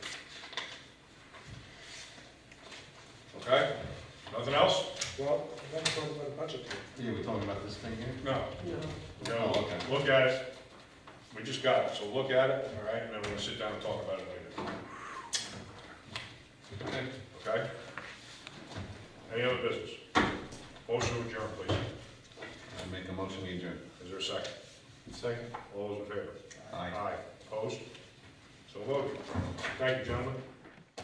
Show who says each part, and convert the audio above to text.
Speaker 1: Okay, nothing else?
Speaker 2: Well, we're not talking about a budget here.
Speaker 3: You were talking about this thing here?
Speaker 1: No.
Speaker 3: Oh,
Speaker 1: No,
Speaker 3: okay.
Speaker 1: look at it. We just got it, so look at it, all right, and then we're gonna sit down and talk about it later. Okay? Any other business? Motion to adjourn, please.
Speaker 3: I make a motion, we adjourn.
Speaker 1: Is there a second?
Speaker 3: Second.
Speaker 1: All those in favor?
Speaker 3: Aye.
Speaker 1: Aye. Opposed? So voted. Thank you, gentlemen.